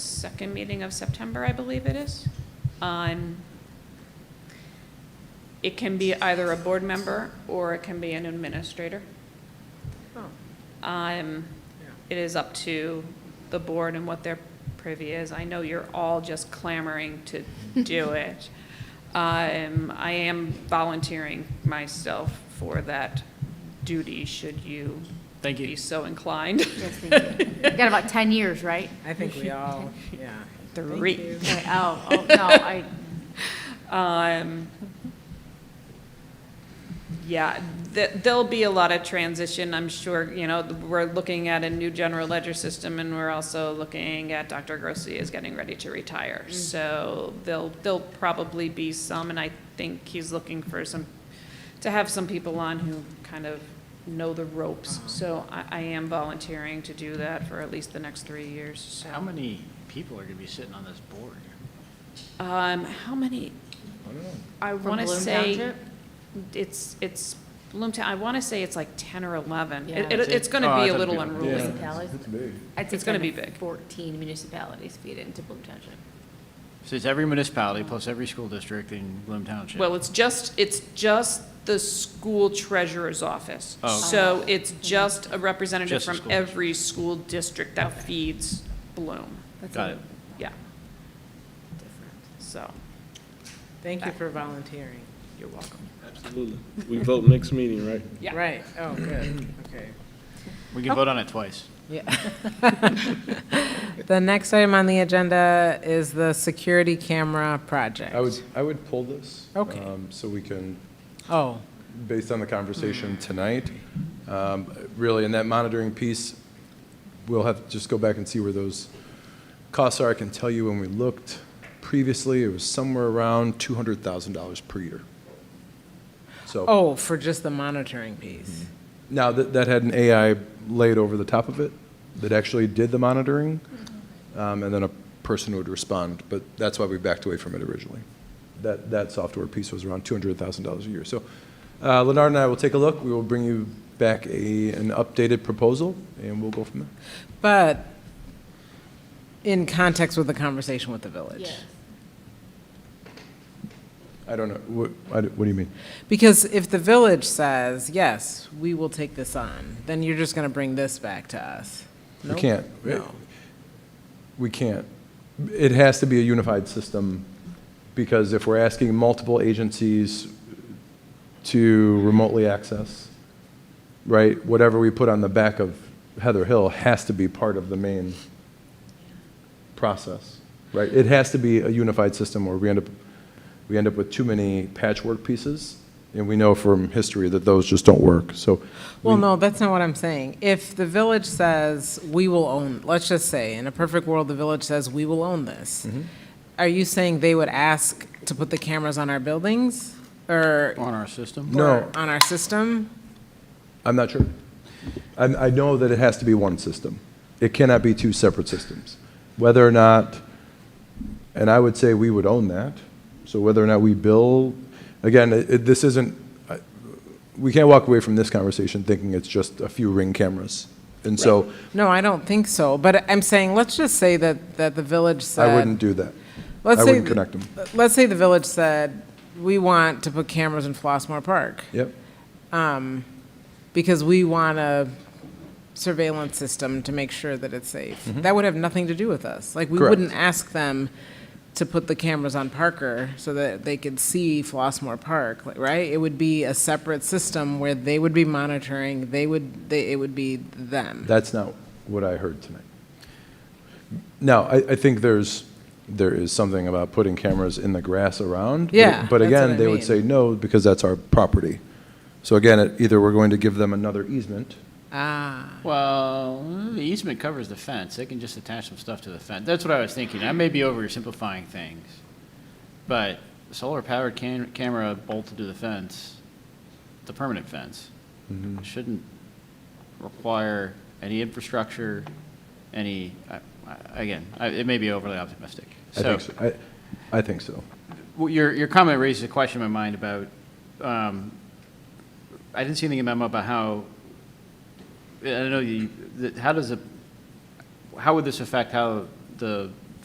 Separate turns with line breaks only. second meeting of September, I believe it is. Um, It can be either a board member or it can be an administrator.
Oh,
Um, It is up to the board and what their privy is. I know you're all just clamoring to do it. Um, I am volunteering myself for that duty, should you
Thank
be
you.
so inclined.
Yes, thank you.
You got about 10 years, right?
I think we all, yeah. Thank
Three.
you.
Right, Oh, oh, no, I,
Um, yeah, th- there'll be a lot of transition, I'm sure, you know, we're looking at a new general ledger system, and we're also looking at Dr. Grossi is getting ready to retire, so there'll, there'll probably be some, and I think he's looking for some, to have some people on who kind of know the ropes,
Uh-huh.
so I, I am volunteering to do that for at least the next three years, so.
How many people are going to be sitting on this board?
Um, how many? I
from
want to
Bloom
say,
Township?
it's, it's, Bloomtown, I want to say it's like 10 or 11.
Yeah.
It, it- it's going
Oh,
to be
I thought
a
it'd
little
be-
unruly.
Yeah. Municipalities?
It's big.
I'd say
It's gonna
kind of
be big.
14 municipalities feed into Bloom Township.
So it's every municipality plus every school district in Bloom Township?
Well, it's just, it's just the school treasurer's office.
Oh, okay.
So it's just a representative
Just the
from
school district.
every school district that feeds Bloom.
That's a
Got it.
little
Yeah,
different.
so,
Thank you for volunteering.
you're welcome.
Absolutely. We vote next meeting, right?
Yeah.
Right, oh, good, okay.
We can vote on it twice.
The next item on the agenda is the security camera project.
I would, I would pull this.
Okay.
um, So we can,
Oh,
based on the
Mm-hmm.
conversation tonight, um, really, in that monitoring piece, we'll have to just go back and see where those costs are. I can tell you when we looked previously, it was somewhere around $200,000 per year. So
oh, for just the monitoring piece.
now that, that had an AI laid over the top of it that actually did the monitoring, um, and then a person would respond, but that's why we backed away from it originally. That, that software piece was around $200,000 a year. So uh, Leonard and I will take a look. We will bring you back a, an updated proposal, and we'll go from there.
But in context with the conversation with the village.
I don't know, what, I don't- what do you mean?
Because if the village says, yes, we will take this on, then you're just going to bring this back to us.
We
Nope.
can't.
No.
We can't. It has to be a unified system, because if we're asking multiple agencies to remotely access, right, whatever we put on the back of Heather Hill has to be part of the main process, right? It has to be a unified system, or we end up, we end up with too many patchwork pieces, and we know from history that those just don't work, so.
Well, no, that's not what I'm saying. If the village says, we will own, let's just say, in a perfect world, the village says, we will own this,
Mm-hmm.
are you saying they would ask to put the cameras on our buildings or
On our system?
No.
or on our system?
I'm not sure. I, I know that it has to be one system. It cannot be two separate systems. Whether or not, and I would say we would own that, so whether or not we bill, again, it, it- this isn't, I- we can't walk away from this conversation thinking it's just a few ring cameras. And so
No, I don't think so. But I'm saying, let's just say that, that the village said.
I wouldn't do that.
let's
I
say
wouldn't
th-
connect 'em.
Let's say the village said, we want to put cameras in Flossmore Park.
Yep,
because we want a surveillance system to make sure that it's safe. That would have nothing to do with us. Like, we
Correct.
wouldn't ask them to put the cameras on Parker so that they could see Flossmore Park, like, right? It would be a separate system where they would be monitoring, they would, they, it would be them.
that's not what I heard tonight. Now, I, I think there's, there is something about putting cameras in the grass around. but-
Yeah,
But
that's what I
again, they would
mean.
say no, because that's our property. So again, it- either we're going to give them another easement.
Ah,
Well, the easement covers the fence. They can just attach some stuff to the fence. That's what I was thinking. I may be oversimplifying things. But solar-powered cam- camera bolted to the fence, the permanent fence,
Mm-hmm.
shouldn't require any infrastructure, any, I- I- again, I- it may be overly optimistic.
I think so. I, I think so.
Well, your, your comment raises a question in my mind about, um, I didn't see anything in the memo about how, I don't know, you, that- how does it, how would this affect how the